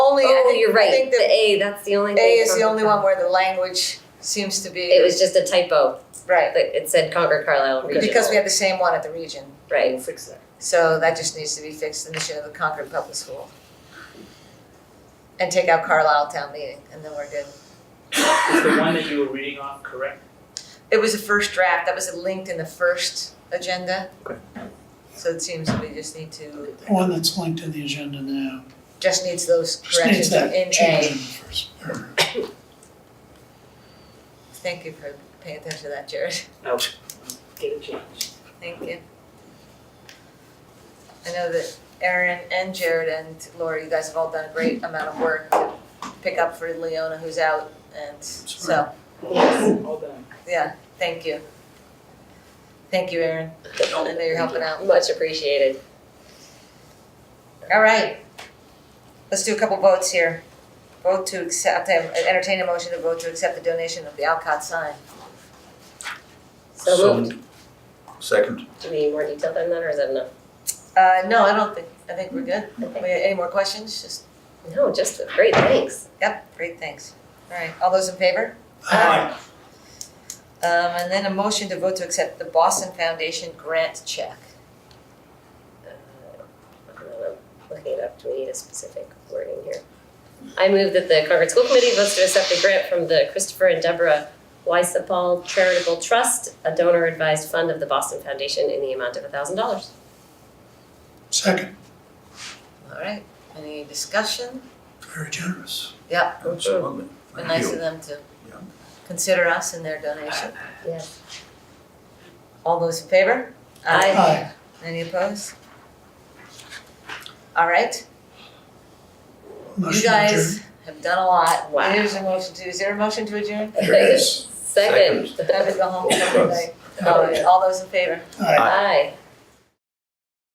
Oh, you're Oh, I right, think the the A, that's the only A thing is the from- only one where the language seems to be. It was just a typo, Right, that it said Concord Carlisle Regional. because we had the same one at the region. Right, We'll fix that. So that just needs to be fixed, the mission of the Concord Public School. And take out Carlisle Town Meeting, and then we're good. Is the one that you were reading off correct? It was the first draft, that was linked in the first agenda. Okay. So it seems that we just need to, The one that's linked in the agenda now, just needs those just needs corrections in that A. change in the first paragraph. Thank you for paying attention to that, Jared. No. Get it changed. Thank you. I know that Erin and Jared and Laura, you guys have all done a great amount of work to pick up for Leona who's out and so, All done. yeah, thank you. Thank you, Erin. I know you're helping out. much appreciated. All right. Let's do a couple votes here. Vote to accept, entertain a motion to vote to accept the donation of the Alcott sign. So moved, Second. do we need more detail than that, or is that enough? Uh, no, I don't think, I think we're good. Okay. We- Any more questions? Just, No, just, great, thanks. yep, great, thanks. All right, all those in favor? Aye. Um, and then a motion to vote to accept the Boston Foundation grant check. Uh, I don't know, I'm looking it up, do we need a specific wording here? I move that the Concord School Committee votes to accept a grant from the Christopher and Deborah Weissapal Charitable Trust, a donor advised fund of the Boston Foundation in the amount of a thousand dollars. Second, All right, any discussion? very generous. Absolutely. Be nice of Thank them to Yeah. consider us in their donation. Yes. All those in favor? Aye. Aye. Any opposed? All right, you Motion adjourned. guys have done a lot. Wow. Here's a motion to, is there a motion to adjourn? There it is. Second. I would go home for the night. All right, all those in favor? Aye. Aye.